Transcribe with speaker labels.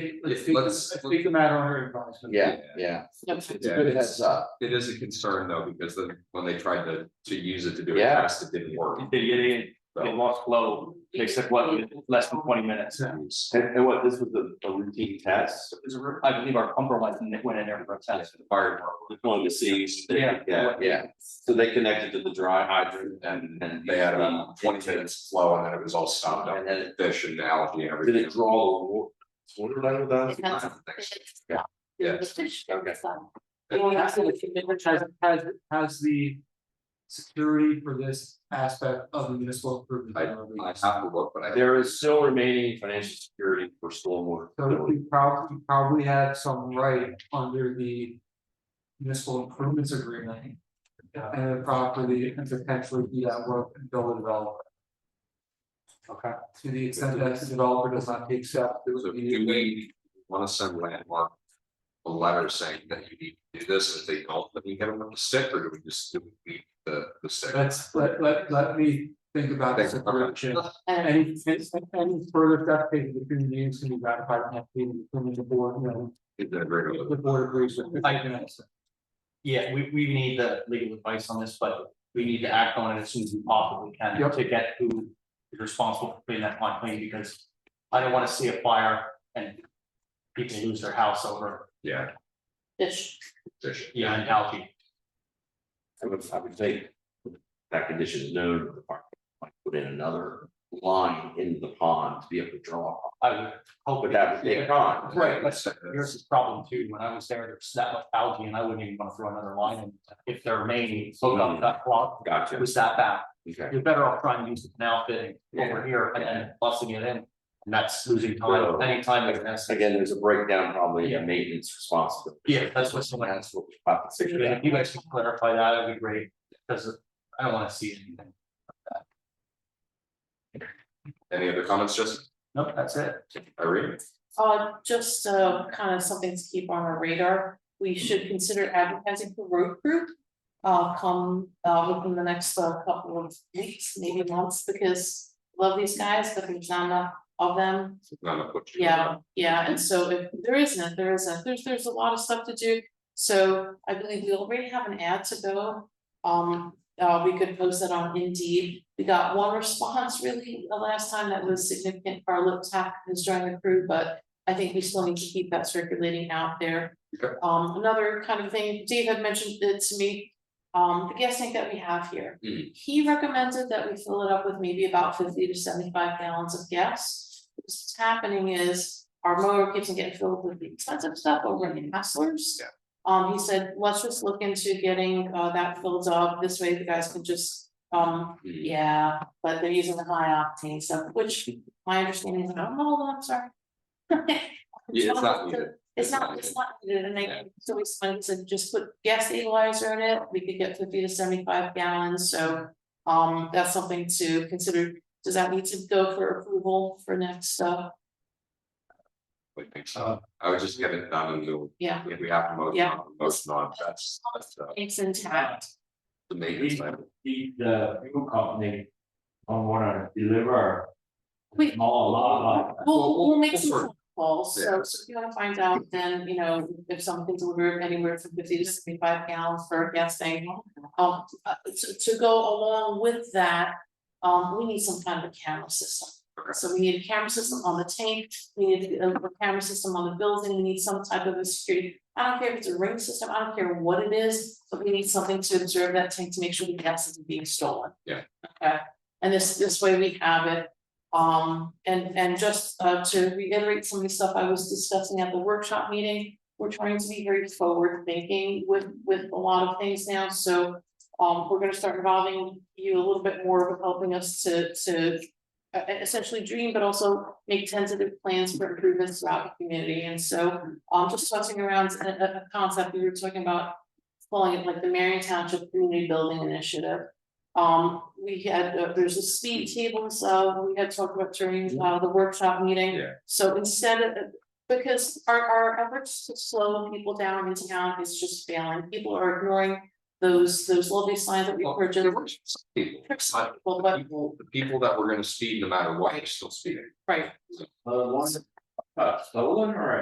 Speaker 1: take, let's take, the-
Speaker 2: Let's-
Speaker 1: let's take the matter under advisement.
Speaker 2: Yeah, yeah.
Speaker 3: Yep.
Speaker 2: It's a good heads up.
Speaker 4: It is a concern though, because then when they tried to to use it to do a
Speaker 2: Yeah.
Speaker 4: test, it didn't work.
Speaker 5: They, they, they
Speaker 4: So
Speaker 5: lost flow, they took what, less than twenty minutes.
Speaker 1: Yeah.
Speaker 5: And, and what, this was a, a routine test? It was a ru- I believe our pumper went, in- went in there for a test.
Speaker 4: fire department,
Speaker 5: Going to see. Yeah.
Speaker 4: Yeah.
Speaker 2: Yeah,
Speaker 5: So they connected to the dry hydrant and, and.
Speaker 4: they had a twenty minutes flow and then it was all stopped up,
Speaker 5: And then,
Speaker 4: fish and algae and
Speaker 5: did it
Speaker 4: everything.
Speaker 5: draw? a wa- Water line with that?
Speaker 4: Yeah. Yes.
Speaker 2: Okay.
Speaker 1: Well, that's it. Has, has, has the security for this aspect of the municipal improvement.
Speaker 4: I-
Speaker 1: plan
Speaker 4: I
Speaker 1: released?
Speaker 4: have to look, but I.
Speaker 5: There is still remaining financial security for stormwater.
Speaker 1: So we probably, probably have some right under the municipal improvements agreement. And properly and potentially be that work and build a developer. Okay. To the extent that the developer does not take steps, it
Speaker 4: So
Speaker 1: would be.
Speaker 4: do we wanna send landmark? A letter saying that you need to do this, if they don't, then we get them with the stick, or do we just do we leave the the stick?
Speaker 1: Let's, let, let, let me think about this
Speaker 4: Think, okay.
Speaker 1: approach. Any, any further step taken between the meetings can be ratified and have been determined the board, you know,
Speaker 4: Is that very
Speaker 1: the board agrees with.
Speaker 5: I can Yeah, we, we need the legal advice on this, but we need to act on it as soon as we possibly can
Speaker 1: Yep.
Speaker 5: to get who is responsible for putting that pond clean, because I don't wanna see a fire and people lose their house over,
Speaker 4: Yeah,
Speaker 3: Fish.
Speaker 4: fish.
Speaker 5: yeah, and algae.
Speaker 6: I would, I would think that condition is known, the park might put in another line in the pond to be able to draw.
Speaker 5: I would hope
Speaker 6: But
Speaker 5: it
Speaker 6: that
Speaker 5: happens.
Speaker 6: would take time.
Speaker 5: Right, that's, here's the problem too, when I was there, there's that much algae and I wouldn't even wanna throw another line in, if there remained, so
Speaker 6: Mm.
Speaker 5: that, that clog, it
Speaker 6: Gotcha,
Speaker 5: was that bad.
Speaker 6: okay.
Speaker 5: you're better off trying to use the canal fitting over here and then busting it in. And that's losing time,
Speaker 6: So-
Speaker 5: any time that that's.
Speaker 6: Again, there's a breakdown probably
Speaker 5: Yeah.
Speaker 6: in maintenance responsibility.
Speaker 5: Yeah, that's what someone asked.
Speaker 6: That's what we have to figure
Speaker 5: If
Speaker 6: out.
Speaker 5: you guys can clarify that, that'd be great, because I don't wanna see anything.
Speaker 4: Any other comments, Justin?
Speaker 5: Nope, that's it.
Speaker 4: Irene?
Speaker 3: Uh, just, uh, kind of something to keep on our radar, we should consider advertising for road group. Uh, come, uh, within the next uh, couple of weeks, maybe months, because love these guys, but there's not enough of them.
Speaker 4: No, no, put you-
Speaker 3: Yeah, yeah, and so if there isn't, there isn't, there's, there's a lot of stuff to do. So I believe we already have an ad to go. Um, uh, we could post that on Indeed. We got one response really the last time that was significant for our lip tap who's joining the crew, but I think we still need to keep that circulating out there.
Speaker 4: Okay.
Speaker 3: Um, another kind of thing, Dave had mentioned it to me, um, the gas tank that we have here.
Speaker 4: Mhm.
Speaker 3: He recommended that we fill it up with maybe about fifty to seventy-five gallons of gas. Because What's happening is our mower keeps on getting filled with the expensive stuff over in Hustlers.
Speaker 4: Yeah.
Speaker 3: Um, he said, let's just look into getting uh that filled up, this way the guys can just, um,
Speaker 4: Mhm.
Speaker 3: yeah, but they're using the high octane stuff, which my understanding is, oh, no, I'm sorry.
Speaker 4: Yeah, it's not needed.
Speaker 3: It's not, it's not, needed, and
Speaker 4: Yeah.
Speaker 3: they, so we spent, said, just put gas equalizer in it, we could get fifty to seventy-five gallons, so. Um, that's something to consider, does that need to go for approval for next, uh,
Speaker 4: I think so. I would just get it done and we'll,
Speaker 3: yeah,
Speaker 4: if we have to motion
Speaker 3: Yeah.
Speaker 4: on, motion on, that's, that's uh,
Speaker 3: it's intact,
Speaker 4: the maintenance. item.
Speaker 7: the the fuel company don't wanna deliver.
Speaker 3: We-
Speaker 7: Small lot,
Speaker 4: We'll-
Speaker 3: we'll,
Speaker 4: we'll-
Speaker 3: we'll make
Speaker 4: we'll
Speaker 3: some
Speaker 4: sort
Speaker 3: phone calls,
Speaker 4: Yeah.
Speaker 3: so, so if you wanna find out, then, you know, if something's delivered anywhere from fifty to seventy-five gallons for a gas tank. Um, uh, to, to go along with that, um, we need some kind of a camera system.
Speaker 4: Okay.
Speaker 3: So we need a camera system on the tank, we need a a camera system on the building, we need some type of a security. I don't care if it's a ring system, I don't care what it is, but we need something to observe that tank to make sure the gas isn't being stolen.
Speaker 4: Yeah.
Speaker 3: Okay, and this, this way we have it. Um, and, and just, uh, to reiterate some of the stuff I was discussing at the workshop meeting, we're trying to be very forward thinking with, with a lot of things now, so. Um, we're gonna start involving you a little bit more with helping us to, to. Uh, essentially dream, but also make tentative plans for improvements throughout the community, and so, um, just tossing around a, a, a concept we were talking about. Calling it like the Marion Township Community Building Initiative. Um, we had, uh, there's a speed table, so we had talked about during, uh, the workshop meeting.
Speaker 4: Yeah.
Speaker 3: So instead of, because our, our efforts to slow people down in town is just failing, people are ignoring those, those lovely signs that we
Speaker 4: Well,
Speaker 3: purchased.
Speaker 4: there were some people,
Speaker 3: Tricks
Speaker 4: but
Speaker 3: people,
Speaker 4: the
Speaker 3: but,
Speaker 4: people, the people that were gonna speed no matter what, they're still speeding.
Speaker 3: right,
Speaker 7: uh, one, uh, stolen or